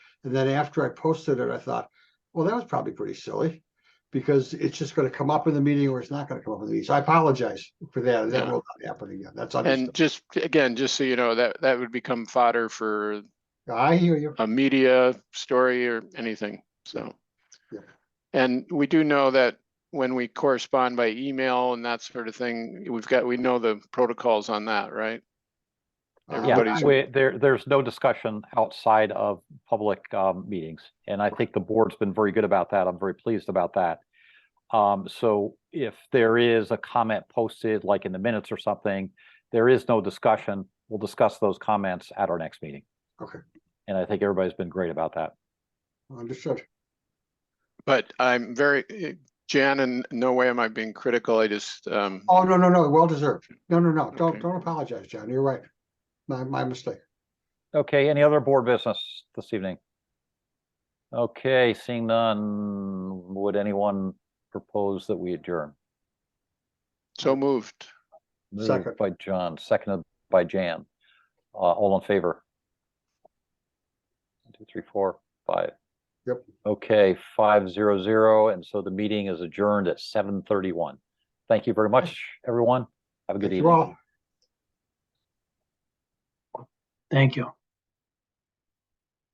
And then after I posted it, I thought, well, that was probably pretty silly. Because it's just gonna come up in the meeting or it's not gonna come up in the meeting. So I apologize for that. and That Yeah. will not happen again. That's And understood. just, again, just so you know, that, that would become fodder for I hear you. a media story or anything, so. Yeah. And we do know that when we correspond by email and that sort of thing, we've got, we know the protocols on that, right? Uh, Everybody's- Yeah, we, there, there's no discussion outside of public, um, meetings, and I think the board's been very good about that. I'm very pleased about that. Um, so if there is a comment posted, like in the minutes or something, there is no discussion. We'll discuss those comments at our next meeting. Okay. And I think everybody's been great about that. Understood. But I'm very, eh, Jan, in no way am I being critical, I just, um, Oh, no, no, no, well deserved. No, no, no, don't, Okay. don't apologize, John. You're right. My, my mistake. Okay, any other board business this evening? Okay, seeing none, would anyone propose that we adjourn? so moved. Moved Second. By John, seconded by Jan. Uh, all in favor? One, Two, three, four, five. Yep. Okay, five zero zero, and so the meeting is adjourned at seven thirty-one. Thank you very much, everyone. Have a good Thank evening. you all. Thank you.